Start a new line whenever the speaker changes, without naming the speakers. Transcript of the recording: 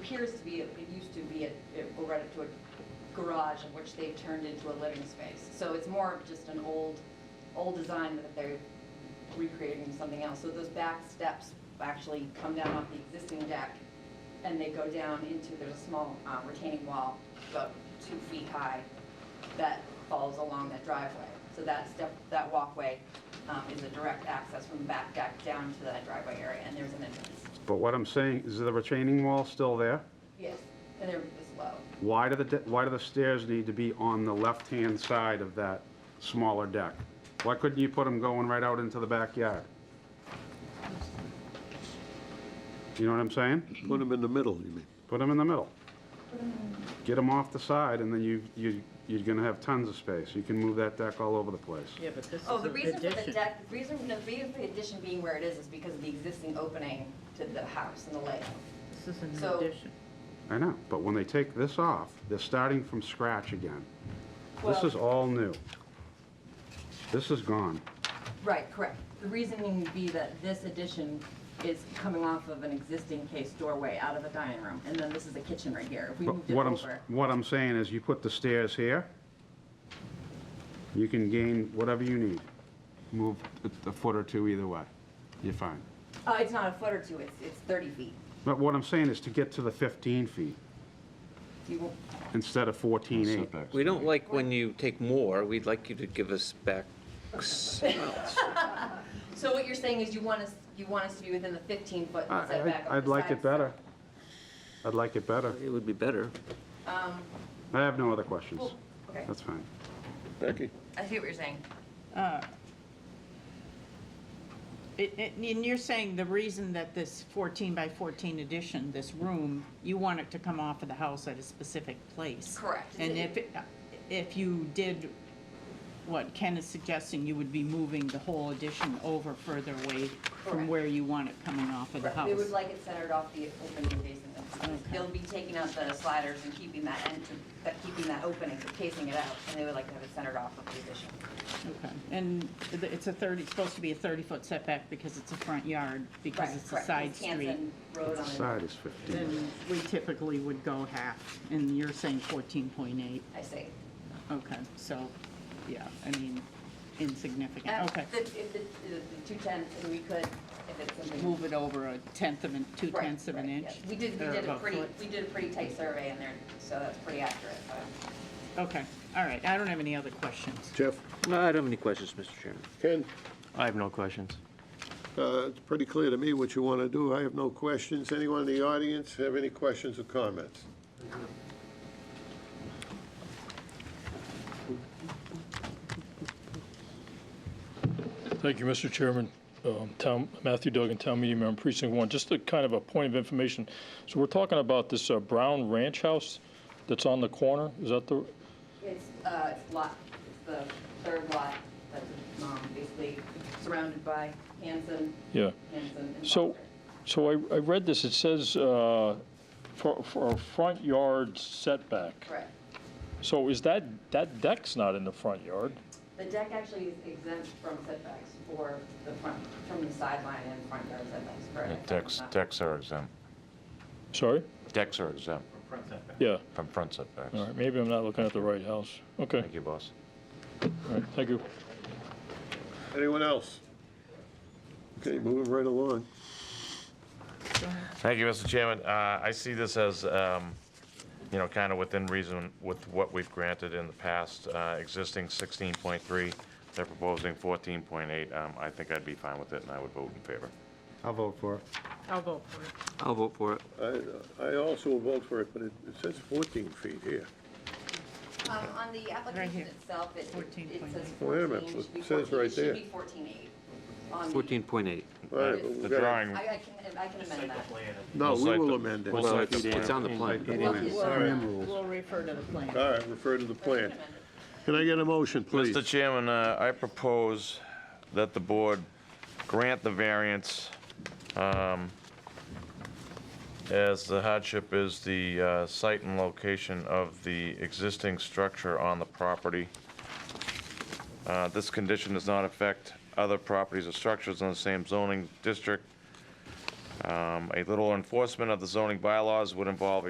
appears to be, it used to be, a- it were rented to a garage in which they've turned into a living space. So it's more of just an old, old design that they're recreating something else. So those back steps actually come down off the existing deck and they go down into, there's a small uh, retaining wall about two feet high that falls along that driveway. So that step, that walkway um, is a direct access from the back deck down to that driveway area and there's an entrance.
But what I'm saying, is the retaining wall still there?
Yes, and there is low.
Why do the, de- why do the stairs need to be on the left-hand side of that smaller deck? Why couldn't you put them going right out into the backyard? You know what I'm saying?
Put them in the middle, you mean?
Put them in the middle. Get them off the side, and then you, you, you're gonna have tons of space. You can move that deck all over the place.
Yeah, but this is
Oh, the
an
reason for the
addition.
deck, the reason, the reason for the addition being where it is is because of the existing opening to the house and the layout.
This is an
So-
addition.
I know, but when they take this off, they're starting from scratch again. This is all new. This is gone.
Right, correct. The reasoning would be that this addition is coming off of an existing case doorway out of a dining room, and then this is a kitchen right here. If we
But
moved it
what I'm,
over,
what I'm saying is you put the stairs here, you can gain whatever you need. Move a- a foot or two either way, you're fine.
uh, it's not a foot or two, it's, it's 30 feet.
But what I'm saying is to get to the 15 feet
You will-
instead of 14.8.
Setbacks.
We don't like when you take more, we'd like you to give us back some else.
So what you're saying is you want us, you want us to be within the 15-foot
I-
setback? of
I- I'd
the
like
side.
it better. I'd like it better.
It would be better.
Um,
I have no other questions.
Well, Okay,
That's fine.
Becky?
I see what you're saying.
Uh, it- it- And you're saying the reason that this 14 by 14 addition, this room, you want it to come off of the house at a specific place?
Correct.
And if, it- if you did what Ken is suggesting, you would be moving the whole addition over further away from
Correct.
where you want it coming off of the
They would
house.
like it centered off the opening facing them.
Okay.
They'll be taking out the sliders and keeping that entrance, that keeping that opening, casing it out, and they would like to have it centered off of the addition.
Okay. And th- it's a 30, it's supposed to be a 30-foot setback because it's a front yard, because
Right,
it's a
correct.
side
It's
street.
Hanson Road
The
on the-
side is 15.
then we typically would go half, and you're saying 14.8.
I see.
Okay, so, yeah, I mean,
Uh,
insignificant, okay.
the- If the, the- the two tenths, and we could, if it's something.
Move it over a tenth of an, two
Right,
tenths of an
right,
inch?
yes. We did, we
or
did a
about
pretty,
foot.
we did a pretty tight survey in there, so that's pretty accurate. but-
Okay, all right, I don't have any other questions.
Jeff,
No, Uh, I don't have any questions, Mr. Chairman.
Ken,
I have no questions.
uh, it's pretty clear to me what you want to do. I have no questions. Anyone in the audience have any questions or comments?
Thank you, Mr. Chairman. Um, Town, Matthew Duggan, Town Meeting Member, Precinct 1. Just a kind of a point of information. So we're talking about this uh, Brown Ranch House that's on the corner? Is that the,
It's, uh, it's lot, it's the third lot that's, um, basically surrounded by Hanson,
yeah.
Hanson and
So,
Foster.
so I, I read this, it says, uh, for, for a front yard setback.
Correct.
So is that, that deck's not in the front yard?
The deck actually is exempt from setbacks for the front, from the sideline and front yard setbacks,
Yeah,
correct? Uh,
Decks, decks are exempt.
Sorry?
Decks are exempt
Yeah.
from front setbacks.
All right, maybe I'm not looking at the right house. Okay,
Thank you, boss.
all right, thank you.
Anyone else? Okay, moving right along.
Thank you, Mr. Chairman. Uh, I see this as, um, you know, kind of within reason with what we've granted in the past. Uh, Existing 16.3, they're proposing 14.8. Um, I think I'd be fine with it, and I would vote in favor.
I'll vote for it.
I'll vote for it.
I'll vote for it.
I I also will vote for it, but it it says 14 feet here.
Um, on the application
here.
itself, it, it it says
14.8.
Wait
14,
a minute,
it should be
it says
14,
right
it should
there.
be 14.8. on the-
14.8.
All right, but we
The
gotta-
drawing,
I, I can, I can amend that.
No, we
We'll cite
will
the-
amend it.
we'll
All
Well,
cite
it's,
the
it's on the
Like,
plan.
eighty
Well,
minutes.
well-
Plan rules.
We'll refer to the plan.
right, refer to the
I can
plan.
amend it.
Can I get a motion, please?
Mr. Chairman, uh, I propose that the board grant the variance um, as the hardship is the uh, site and location of the existing structure on the property. Uh, This condition does not affect other properties or structures in the same zoning district Um, A little enforcement of the zoning bylaws would involve a